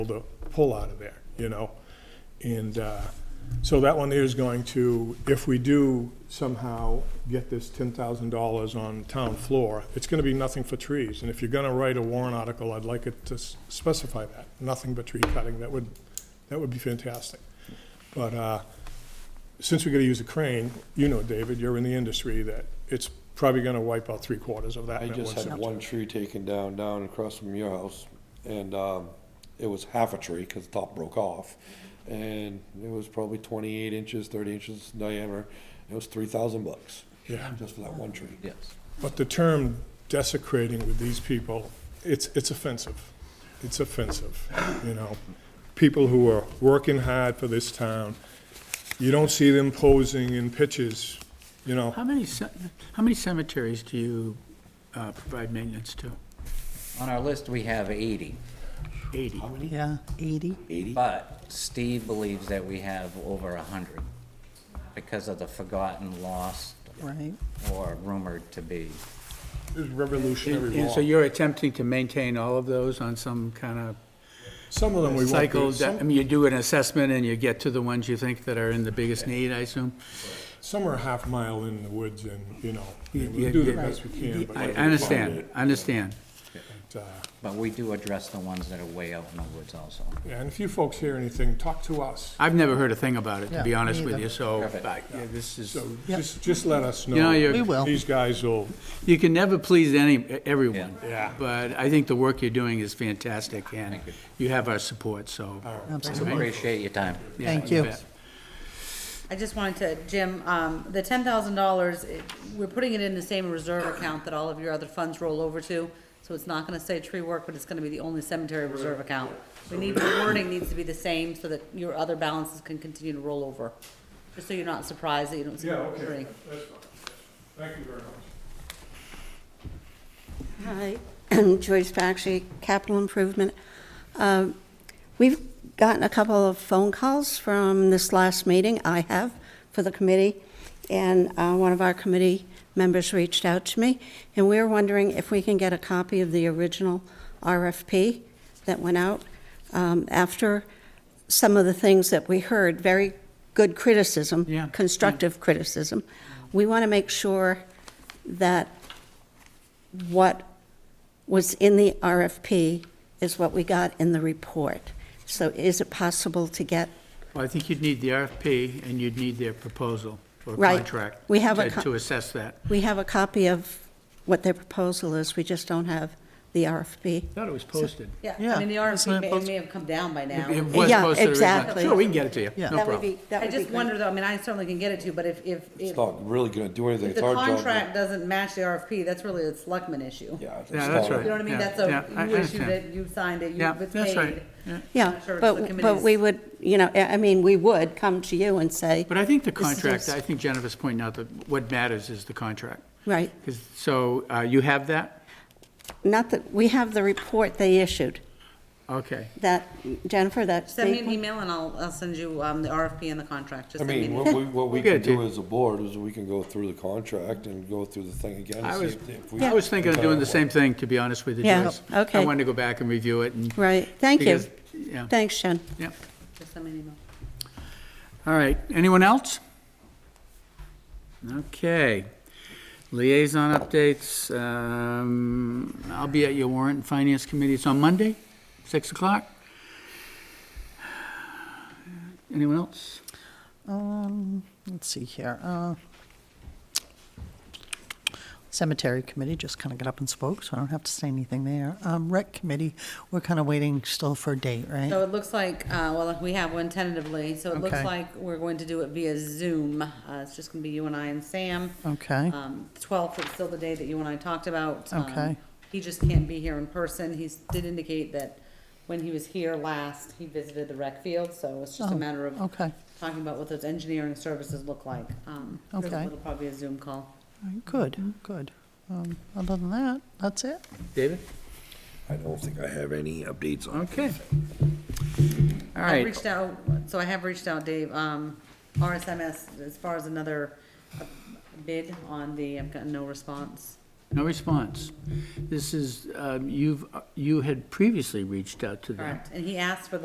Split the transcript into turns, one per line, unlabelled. able to pull out of there, you know? And uh, so that one there is going to, if we do somehow get this $10,000 on town floor, it's going to be nothing for trees. And if you're going to write a warrant article, I'd like it to s- specify that, nothing but tree cutting. That would, that would be fantastic. But uh, since we're going to use a crane, you know, David, you're in the industry, that it's probably going to wipe out three quarters of that.
I
in
just
one
had
sitting.
one tree taken down, down across from your house, and, um, it was half a tree, cause the top broke off. And it was probably twenty-eight inches, thirty inches diameter, it was three thousand bucks.
Yeah.
Just for that one tree.
Yes.
But the term desecrating with these people, it's, it's offensive. It's offensive, you know? People who are working hard for this town, you don't see them posing in pitches, you know?
How many, ce- how many cemeteries do you uh, provide maintenance to?
On our list, we have 80,
Eighty.
Yeah, 80.
but Steve believes that we have over 100 because of the forgotten, lost,
Right.
or rumored to be.
It's revolutionary
And
law.
so you're attempting to maintain all of those on some kind
Some of them we won't
of cycle?
do.
that- I
Some-
mean, you do an assessment and you get to the ones you think that are in the biggest need, I assume?
Some are a half mile in the woods and, you know,
You-
we
you-
do the
you-
best we can. but-
I I understand, I understand.
But, uh,
But we do address the ones that are way out in the woods also.
yeah, And if you folks hear anything, talk to us.
I've never heard a thing about it, to be
Yeah, me
honest with
either.
you, so
Perfect.
I- yeah, this is,
So just, just let us know.
know, you're-
We will.
These guys will,
you can never please any, e, everyone.
Yeah.
Yeah.
But I think the work you're doing is fantastic and
Thank you.
you have our support, so.
Absolutely.
Appreciate your time.
yeah,
Thank you.
bet.
I just wanted to, Jim, um, the ten thousand dollars, we're putting it in the same reserve account that all of your other funds roll over to. So it's not gonna say tree work, but it's gonna be the only cemetery reserve account. We need, the wording needs to be the same so that your other balances can continue to roll over. Just so you're not surprised that you don't see
yeah,
roll
okay, that's fine. Thank you very much.
Hi, Joyce Bakshi, Capital Improvement. Um, We've gotten a couple of phone calls from this last meeting, I have, for the committee, and uh, one of our committee members reached out to me, and we we're wondering if we can get a copy of the original RFP that went out um, after some of the things that we heard, very good criticism,
Yeah, yeah.
constructive criticism. We want to make sure that what was in the RFP is what we got in the report. So is it possible to get,
Well, I think you'd need the RFP and you'd need their proposal or
Right.
contract.
We have a
to-
con-
To assess that.
we have a copy of what their proposal is, we just don't have the RFP.
Thought it was posted.
Yeah, I
Yeah,
mean, the
that's not
RFP may,
posted.
may have come down by now.
It was
Yeah,
posted originally.
exactly.
Sure, we can get it to you,
Yeah.
no
That would
problem.
be, that
I
would be
just
great.
wonder though, I mean, I certainly can get it to you, but if, if,
It's
if
not really gonna do anything,
if
it's
the
our job. to-
contract doesn't match the RFP, that's really a selectman issue.
Yeah. it's
Yeah, that's
not-
right.
You know what I mean?
Yeah,
That's
yeah, I-
a, you
I
issued
understand.
it, you signed it,
Yeah,
you've been paid.
that's right, yeah.
Yeah,
Sure, it's the
but, but
committee's-
we would, you know, I I mean, we would come to you and say,
But I think the
This is
contract,
just-
I think Jennifer's pointing out that what matters is the contract.
right,
'Cause- So uh, you have that?
not that, we have the report they issued,
Okay.
that, Jennifer, that.
Send me an
they-
email and I'll, I'll send you, um, the RFP and the contract,
I
just send me an
mean,
email.
what we, what we
We'll
can
get it to
do
you.
as a board is we can go through the contract and go through the thing again.
I
and see
was,
if- if we-
I was thinking of doing the same thing, to be honest with you,
Yeah,
Joyce. I
okay.
wanted to go back and review it and.
Right, thank you.
because- Yeah,
Thanks, Jen.
yeah.
Just send me an email.
All right, anyone else? Okay. Liaison updates, um, I'll be at your warrant and finance committee, it's on Monday, 6 o'clock. Anyone else?
Um, let's see here. Uh, Cemetery Committee just kind of got up and spoke, so I don't have to say anything there. Um, Rec Committee, we're kind of waiting still for a date,
So
right?
it looks like, uh, well, we have one tentatively, so it looks
Okay.
like we're going to do it via Zoom. Uh, it's just gonna be you and I and Sam.
Okay,
Um, twelfth is still the day that you and I talked about. Um,
Okay.
He just can't be here in person. He's, did indicate that when he was here last, he visited the rec field, so it's just a
Oh,
matter of
okay.
talking about what those engineering services look like. Um,
Okay.
It'll probably be a Zoom call. Mm-hmm.
good, good. Um, other than that, that's it.
David?
I don't think I have any updates on it.
Okay. All
I've
right,
reached out, so I have reached out, Dave, um, RSMS, as far as another uh, bid on the, I've gotten no response.
No response. This is, um, you've, you had previously reached out to them.
Correct, and he asked for the